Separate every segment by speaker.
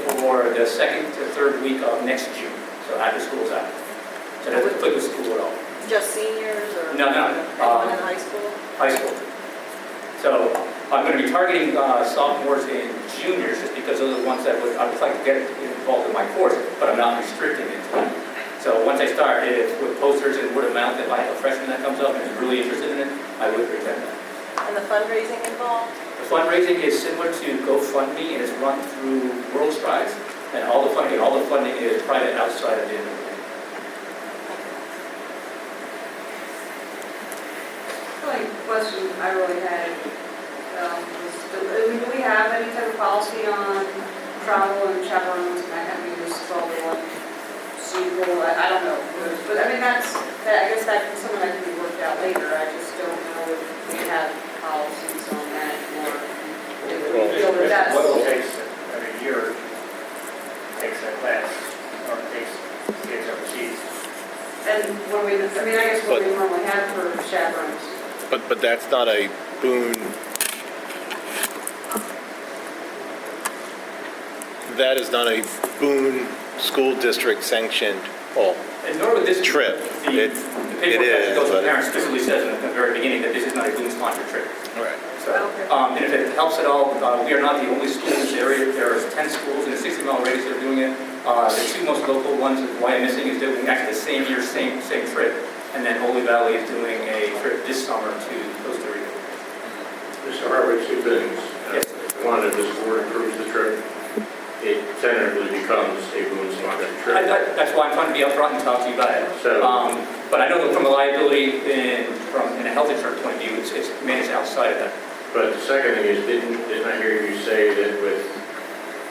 Speaker 1: the second to third week of next June, so after school's out. So that doesn't put the school at all,
Speaker 2: Just seniors or?
Speaker 1: No, no,
Speaker 2: Everyone in
Speaker 1: um,
Speaker 2: high school?
Speaker 1: high school. So I'm going to be targeting uh, sophomores and juniors just because those are the ones that would, I would like to get involved in my course, but I'm not restricting it. So once I start eh, with posters and word of mouth, if I have a freshman that comes up and is really interested in it, I would present that.
Speaker 2: And the fundraising involved?
Speaker 1: The fundraising is similar to GoFundMe, and it's run through World Strides, and all the funding, all the funding is private outside of the university.
Speaker 3: The only question I really had um, was, do I mean, do we have any type of policy on travel and chaperones and that kind of use of all the one suitable? I I don't know, but I mean, that's, that- I guess that can something that can be worked out later. I just don't know if we have policies on that or if we feel that that's.
Speaker 4: What will takes every year, takes a class, or takes kids overseas.
Speaker 3: And when we, I mean, I guess what we normally have for chaperones.
Speaker 5: But, but that's not a boon. That is not a Boone School District sanctioned, oh,
Speaker 1: And nor would this.
Speaker 5: Trip.
Speaker 1: The
Speaker 5: It-
Speaker 1: the
Speaker 5: it
Speaker 1: paperwork that
Speaker 5: is,
Speaker 1: goes to
Speaker 5: but-
Speaker 1: parents specifically says at the very beginning that this is not a Bloom sponsored trip.
Speaker 5: right.
Speaker 1: So,
Speaker 3: Okay.
Speaker 1: um, and if it helps at all, uh, we are not the only school in this area. There are 10 schools in a 60-mile radius that are doing it. Uh, The two most local ones, why I'm missing, is doing actually the same year, same, same trip. And then Holy Valley is doing a trip this summer to Costa Rica.
Speaker 6: Mr. Harvey, two things.
Speaker 1: Yes.
Speaker 6: One, if this board approves the trip, it tentatively becomes a Boone sponsored
Speaker 1: I-
Speaker 6: trip.
Speaker 1: I- That's why I'm trying to be upfront and talk to you about it.
Speaker 6: So,
Speaker 1: Um, But I know that from a liability and from, in a health insurance point of view, it's it's managed outside of that.
Speaker 6: but the second thing is, didn't, didn't I hear you say that with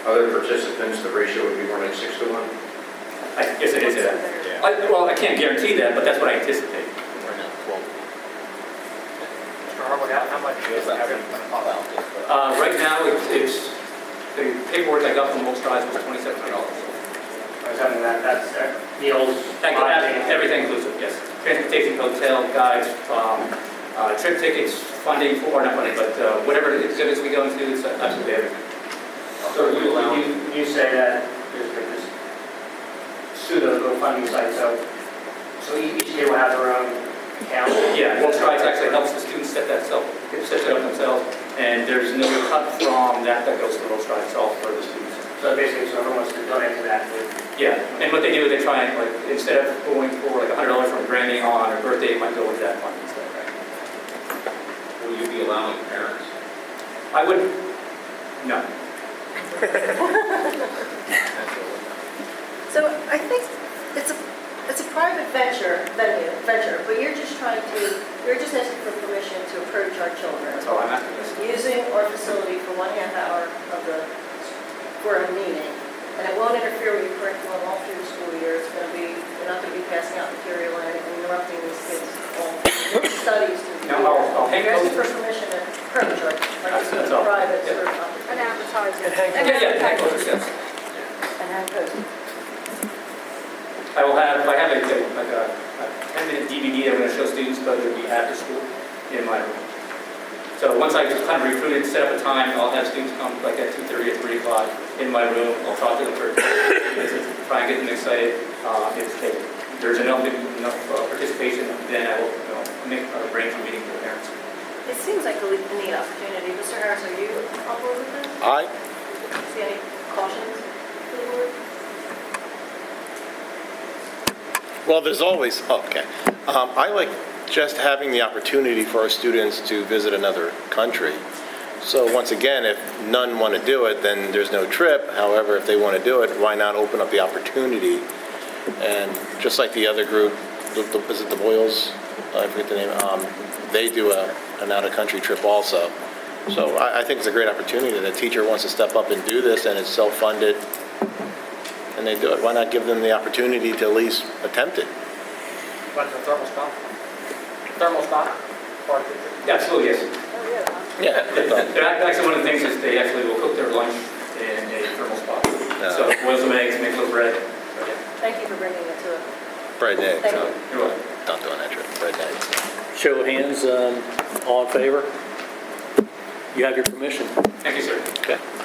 Speaker 6: other participants, the ratio would be more like six to one?
Speaker 1: I guess it is, uh, I- well, I can't guarantee that, but that's what I anticipate.
Speaker 4: Mr. Harwood, how how much is having?
Speaker 1: Uh, Right now, it's- it's, the paperwork I got from Most Drive was $2,700.
Speaker 4: I was having that, that's uh, meals,
Speaker 1: That- that-
Speaker 4: lodging.
Speaker 1: Everything inclusive, yes. Transportation, hotel, guides, um, uh, trip tickets, funding for, not funding, but uh, whatever exhibits we go into, it's absolutely everything.
Speaker 4: So you, you, you say that is for this pseudo GoFundMe site, so, so each kid will have their own account?
Speaker 1: Yeah, World Strides actually helps the students set that self, set that up themselves, and there's no cut from that that goes to World Strides, it's all for the students.
Speaker 4: So basically, so everyone wants to donate to that, would-
Speaker 1: Yeah, and what they do is they try and, like, instead of going for like a hundred dollars from Granny on her birthday, it might go with that fund instead, right?
Speaker 7: Will you be allowing parents?
Speaker 1: I would, no.
Speaker 2: So I think it's a, it's a private venture, venue, venture, but you're just trying to, you're just asking for permission to approach our
Speaker 1: That's
Speaker 2: children
Speaker 1: all I'm asking this.
Speaker 2: using our facility for one half hour of the, for a meeting. And it won't interfere with your curriculum all through the school year. It's going to be, we're not going to be passing out material and interrupting these kids' all studies. to
Speaker 1: No, I'll- I'll hang
Speaker 2: You're asking for
Speaker 1: those-
Speaker 2: permission to approach our, like,
Speaker 1: That's- that's all.
Speaker 2: private,
Speaker 1: Yeah.
Speaker 2: sort of, uh,
Speaker 3: An advertising.
Speaker 1: Yeah, yeah, thank you, yes.
Speaker 2: and have those.
Speaker 1: I will have, I have a, like a a ten-minute DVD that I'm gonna show students, but it'll be after school in my room. So once I just kind of recruit and set up a time, I'll have students come like at two thirty or three o'clock in my room, I'll talk to them for, try and get them excited. Uh, if they- there's enough, enough uh, participation, then I will, you know, make, uh, arrange a meeting for the parents.
Speaker 2: It seems like a le- a neat opportunity. Mr. Harris, are you on board with this?
Speaker 5: I,
Speaker 2: See any cautions for the board?
Speaker 5: well, there's always, oh, okay. Um, I like just having the opportunity for our students to visit another country. So once again, if none want to do it, then there's no trip. However, if they want to do it, why not open up the opportunity? And just like the other group, the- the- is it the Boyles? I forget the name. Um, They do a, an out-of-country trip also. So I, I think it's a great opportunity that a teacher wants to step up and do this and it's self-funded and they do it. Why not give them the opportunity to at least attempt it?
Speaker 4: what's the thermal spot? Thermal spot? Or the-
Speaker 1: Absolutely, yes.
Speaker 2: Oh, yeah.
Speaker 5: Yeah.
Speaker 1: They're act- Actually, one of the things is they actually will cook their lunch in a thermal spot. So boil some eggs, make a little bread. So, yeah,
Speaker 2: Thank you for bringing it to us.
Speaker 5: Bright day.
Speaker 2: Thank you.
Speaker 1: You're welcome.
Speaker 5: Not doing that trip. Bright day.
Speaker 8: Show of hands, um, all in favor? You have your permission.
Speaker 1: Thank you, sir.
Speaker 5: Okay.